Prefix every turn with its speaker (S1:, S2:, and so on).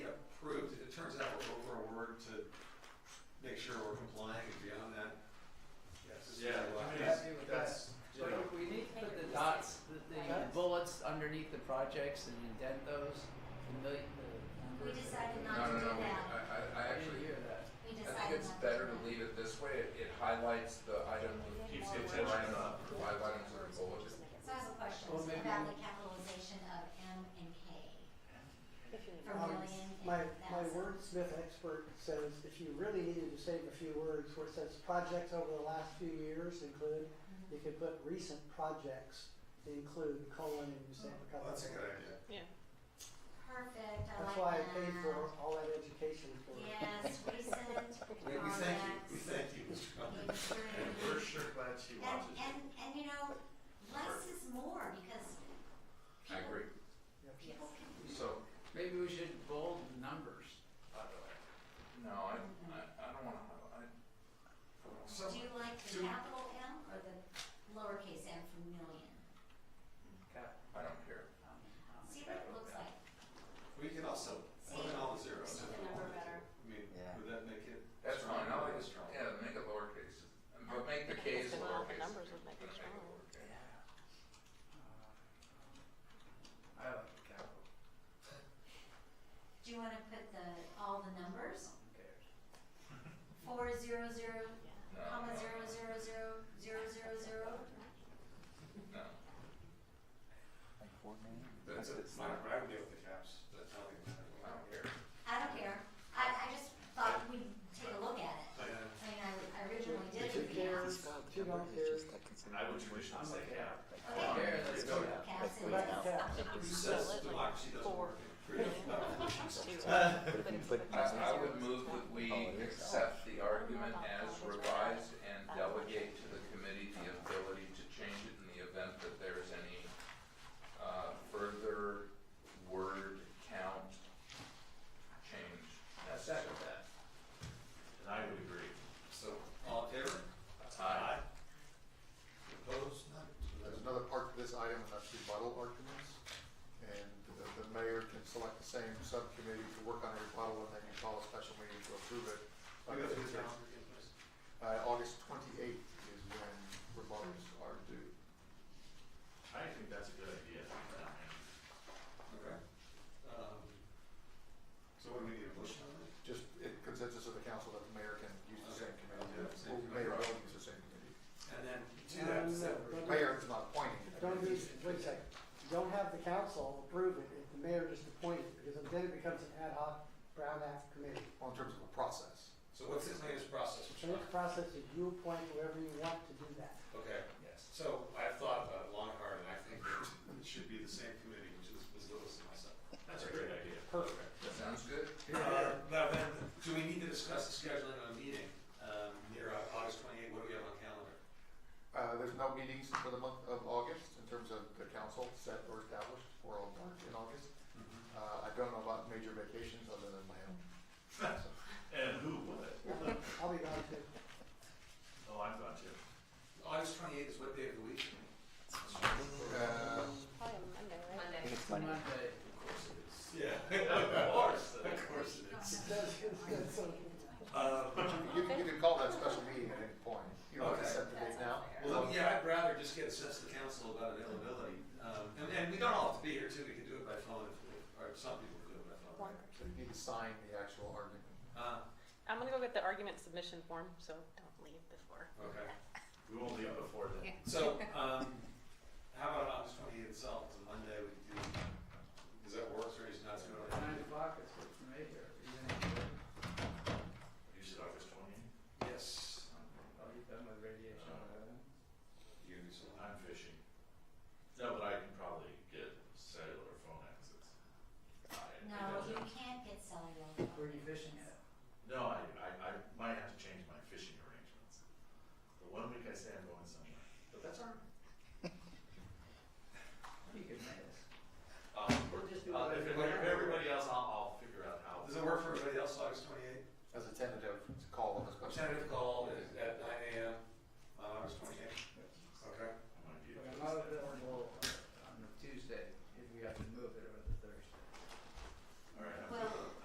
S1: underneath the projects and indent those? The million, the
S2: We
S1: numbers?
S2: decided
S3: No,
S2: not to
S3: no,
S2: do
S3: no, we-
S2: that.
S3: I, I, I
S1: I didn't
S3: actually,
S1: hear that.
S2: We
S3: I
S2: decided
S3: think it's
S2: not to
S3: better
S2: do
S3: to
S2: that.
S3: leave it this way, it, it highlights the item,
S4: Keeps
S3: the
S4: the
S3: line
S4: attention.
S3: up, the line items are bulleted.
S2: So I have a question
S1: Well, maybe-
S2: about the capitalization of M and K for
S5: Um,
S2: million
S5: My,
S2: and
S5: my
S2: thousand.
S5: wordsmith expert says if you really needed to save a few words, where it says projects over the last few years include,
S2: Mhm.
S5: you could put recent projects include colon and you save a couple.
S3: That's a
S5: of
S3: good
S5: words.
S3: idea.
S2: Perfect, I
S5: That's why I
S2: like
S5: paid for
S2: that.
S5: all that education for it.
S2: Yes, recent
S6: We, we thank you, we
S2: projects.
S6: thank you, Mr. Conley.
S2: Improved.
S4: And we're sure glad she
S2: And,
S4: watches
S2: and,
S4: it.
S2: and you know, less is more because
S3: I agree,
S2: people can
S3: so,
S1: Maybe we should bold the numbers, by the way.
S3: no, I, I, I don't wanna highlight.
S2: Do you like the
S3: Do-
S2: capital M or the lowercase m for million?
S1: Cap-
S3: I don't care.
S1: um, um,
S2: See what it looks like.
S6: We could also put in all the zeros
S2: See
S6: if
S2: the
S6: we
S2: number
S6: wanted to.
S2: better.
S6: I mean,
S7: Yeah.
S6: would that make it?
S3: That's fine, I like
S6: it
S3: it strong, yeah, make it lowercase, but make the K's
S8: Well, the
S3: lowercase.
S8: numbers would make it
S3: Make
S8: strong.
S3: lowercase.
S1: uh, I like the capital,
S2: Do you wanna put the, all the numbers?
S1: who cares?
S2: Four zero zero,
S3: No,
S2: comma
S3: no,
S2: zero zero zero, zero zero zero?
S3: No,
S7: Like four million?
S3: That's it.
S6: It's not, I would deal with the caps,
S3: That's-
S6: I don't think
S3: I
S6: that-
S3: don't care.
S2: I don't care. I, I just thought we'd take a look at it.
S6: I, uh,
S2: I mean, I I originally did it
S5: If you
S2: with
S5: care,
S2: caps.
S5: if you don't care,
S4: I would traditionally
S1: I'm
S4: say
S1: okay.
S4: yeah.
S3: Come on,
S2: Okay,
S1: Here, let's
S3: it's
S1: go.
S3: okay.
S2: caps
S5: go
S2: and
S5: back to
S2: mills.
S5: caps.
S8: If you
S6: Who says
S8: split it like
S6: democracy doesn't
S8: four
S6: work?
S8: million
S6: Freedom.
S8: to, uh,
S6: Uh,
S7: But if you
S8: it's
S7: put
S8: like
S3: I,
S7: caps
S3: I
S8: zero,
S3: would move
S8: it's
S3: that
S8: not.
S3: we accept the argument as revised and delegate to the committee the ability to change it in the event that there is any, uh, further word count change necessary.
S4: And I would agree.
S6: So, all in favor?
S3: Aye.
S6: Opposed? None.
S9: There's another part to this item, and that's rebuttal arguments. And the, the mayor can select the same subcommittee to work on a rebuttal, and they can call a special meeting to approve it.
S6: I'll go through the calendar again, please.
S9: Uh, August twenty-eighth is when rebuttals are due.
S4: I think that's a good idea.
S6: Okay. Um, So what do we need a motion on that?
S9: Just it consensus of the council that the mayor can use the same committee,
S6: Okay.
S9: or mayor will use the same committee.
S6: And then do
S5: Um,
S6: that
S5: no,
S6: separate.
S5: but-
S9: Mayor is not appointing. the
S5: Don't
S9: committee.
S5: use, wait a second, don't have the council approve it if the mayor just appointed, because then it becomes an ad hoc Brown Act committee.
S9: Well, in terms of a process.
S6: So what's this latest process?
S5: So this process is you appoint whoever you want to do that.
S6: Okay,
S3: Yes.
S6: so I've thought about it long and hard, and I think that it should be the same committee, which is Ms. Lewis and myself.
S4: That's a great idea.
S5: Perfect.
S3: That sounds good.
S6: Uh, Now then, do we need to discuss the scheduling of a meeting um, near uh, August 28? What do we have on calendar?
S9: Uh, there's no meetings for the month of August in terms of the council set or established for all March in August.
S6: Mm-hmm.
S9: Uh, I don't know about major vacations other than my own.
S4: And who would?
S5: I'll be gone too.
S4: Oh, I'm gone too.
S6: August 28 is what day of the week?
S9: Uh,
S8: Probably a Monday, right?
S7: I think it's
S1: Monday,
S7: Monday.
S6: Of course it is. Yeah.
S4: Of course.
S6: Of course it is.
S5: It does, it's good, so-
S6: Um,
S9: You can, you can call that special meeting at any point. You don't have to set the date now.
S6: Well, yeah, I'd rather just get a sense of the council about availability. Um, And and we don't all have to be here too, we can do it by phone, if- or some people do it by phone. right?
S9: So you need to sign the actual argument.
S6: Uh,
S8: I'm gonna go get the argument submission form, so don't leave before.
S6: Okay.
S4: We won't leave before then.
S6: So, um, how about August twenty-eighth itself, it's a Monday, we can do, does that work, or is it not too
S1: Nine
S6: early?
S1: o'clock is good for me here. Are you gonna-
S4: Use it August twenty.
S6: Yes.
S1: I'll be done with radiation.
S6: You can do something.
S4: I'm fishing. No, but I can probably get cellular phone access. I- it
S2: No,
S4: doesn't-
S2: you can't get cellular. phone
S1: Where are you
S2: service.
S1: fishing at?
S4: No, I, I, I might have to change my fishing arrangements. But one week I say I'm going somewhere, but that's all right.
S1: You could make us.
S4: Um,
S1: We'll just do
S4: uh,
S1: it
S4: if, it-
S1: right
S4: if
S1: now.
S4: everybody else, I'll, I'll figure out how.
S6: Does it work for everybody else, August twenty-eighth?
S9: As a tentative, to call of a special.
S6: Tentative call